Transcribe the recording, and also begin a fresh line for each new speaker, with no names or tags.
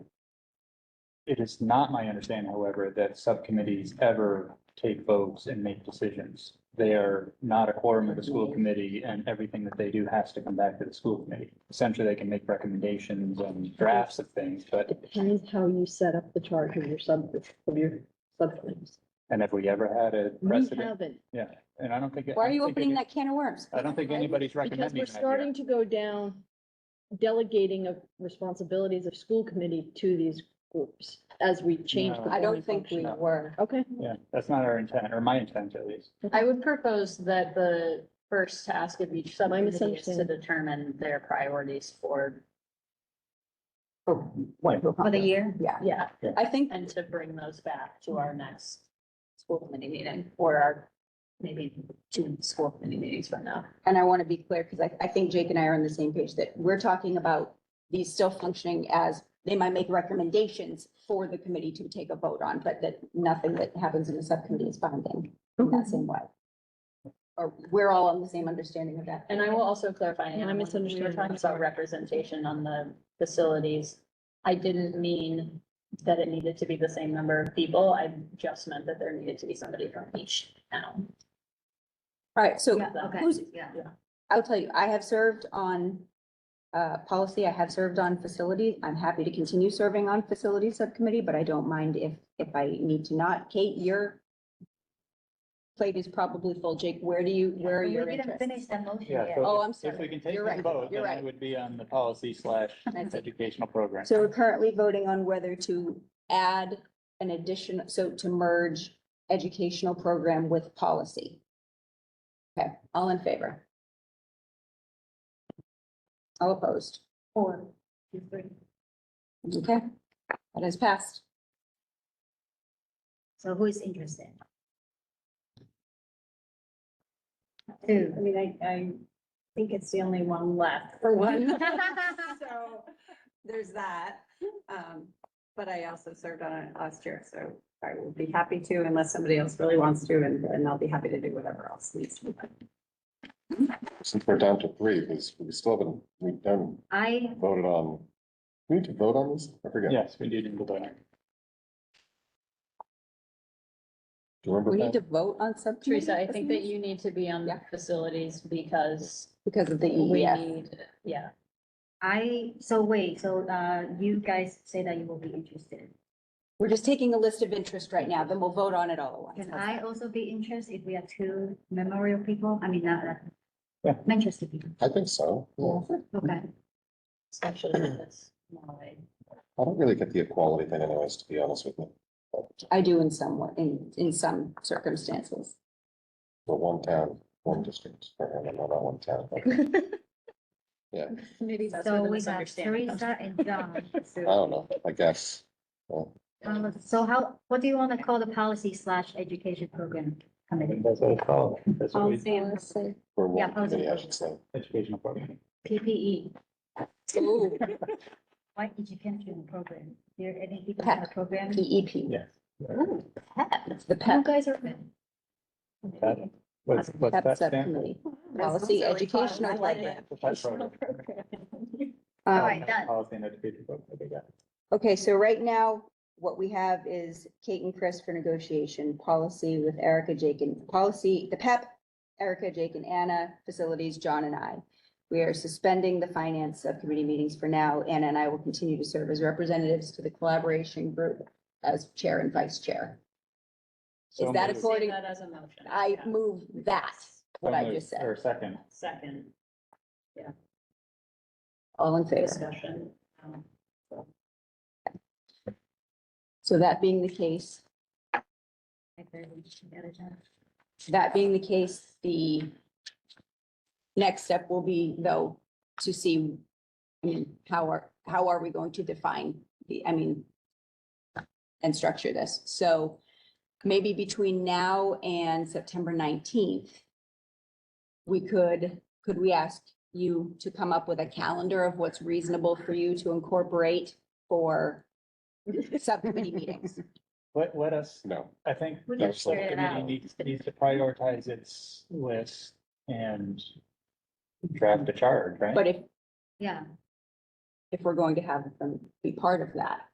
It is not my understanding, however, that subcommittees ever take votes and make decisions. They are not a quorum of the school committee and everything that they do has to come back to the school committee. Essentially, they can make recommendations and drafts of things, but,
Depends how you set up the charge of your sub, of your subcommittees.
and have we ever had a
We
precedent?
haven't,
Yeah, and I don't think.
Why
I
are you
don't think any-
opening that can of worms?
I don't think
Right?
anybody's
because
recommending
we're
that here.
starting to go down delegating of responsibilities of school committee to these groups as we change.
No.
the
I
zoning
don't think
function.
we
No.
were.
Okay,
Yeah, that's not our intent, or my intent at least.
I would propose that the first task of each subcommittee is to
misunderstanding.
determine their priorities for,
For the year? Yeah.
yeah,
I think,
and to bring those back to our next school committee meeting or our, maybe two school committee meetings from now.
and I want to be clear, because I, I think Jake and I are on the same page, that we're talking about these still functioning as, they might make recommendations for the committee to take a vote on, but that nothing that happens in the subcommittee is binding in that same way. Or we're all on the same understanding of that.
And I will also clarify,
Yeah, I
Anna, when we were
misunderstood.
talking about representation on the facilities. I didn't mean that it needed to be the same number of people. I just meant that there needed to be somebody from each town.
All right, so
okay.
who's,
Yeah.
I'll tell you, I have served on uh, policy, I have served on facility. I'm happy to continue serving on facility subcommittee, but I don't mind if, if I need to not. Kate, your plate is probably full. Jake, where do you, where are
We
your
didn't
interests?
finish that motion
Yeah.
yet.
so
Oh,
if-
I'm
If we
sorry.
can take
You're
the
right.
vote,
You're
then it
right.
would be on the policy slash
That's it.
educational program.
So we're currently voting on whether to add an addition, so to merge educational program with policy. Okay, all in favor? All opposed?
Four, two, three.
Okay, that has passed.
So who is interested? Two.
I mean, I, I think it's the only one left for one. So there's that. Um, but I also served on it last year, so I will be happy to unless somebody else really wants to and, and I'll be happy to do whatever else needs to be done.
Since we're down to three, because we still haven't, we haven't
I,
voted on, we need to vote on this? I forget.
Yes, we do need to vote.
Do you
We
remember
need to
that?
vote on subcommittee.
Teresa, I think that you need to be on the
Yeah.
facilities because
Because of the E,
we
EEF.
need, yeah.
I, so wait, so, uh, you guys say that you will be interested.
We're just taking a list of interest right now, then we'll vote on it all at once.
Can
How's that?
I also be interested if we have two memorial people? I mean, not, that-
Yeah.
I'm interested people,
I think so. Yeah.
okay.
Especially if it's more like-
I don't really get the equality thing anyways, to be honest with you.
I do in some, wa- in, in some circumstances.
The one town, one district, or no, not one town.
That's where
So
the
we have
misunderstanding comes
Teresa and John.
I don't know, I guess. Well,
Um, So how, what do you want to call the policy slash education program committee?
That's what it's called. That's what
I'll
we,
stand.
Or one
Yeah, I was-
committee, I should say.
educational program.
PPE,
Ooh,
white education program. There any people
Pep.
in the program?
PEP.
Yeah. Mm,
Ooh, pep.
It's E the E
You
PEP,
guys are.
E
Pep. What's, what's
PEP
that stand for?
subcommittee, policy educational program.
The PEP program. Oh,
All
Um,
right, done.
Policy and education program, I think, yeah.
Okay, so right now, what we have is Kate and Chris for negotiation, policy with Erica, Jake and policy, the PEP, Erica, Jake and Anna, facilities, John and I. We are suspending the finance subcommittee meetings for now. Anna and I will continue to serve as representatives to the collaboration group as chair and vice chair.
So
Is that
moved.
a- According-
Say that as a motion.
I
Yeah.
move that, what
So
I
moved.
just said.
Or second.
Second
All in favor.
discussion. Um,
So that being the case, that being the case, the next step will be though, to see, I mean, how are, how are we going to define the, I mean, and structure this? So maybe between now and September nineteenth, we could, could we ask you to come up with a calendar of what's reasonable for you to incorporate for subcommittee meetings?
Let, let us,
No,
I think
We
the
can figure it
subcommittee
out.
needs, needs to prioritize its list and draft a charge, right?
But if
Yeah,
if we're going to have them be part of that.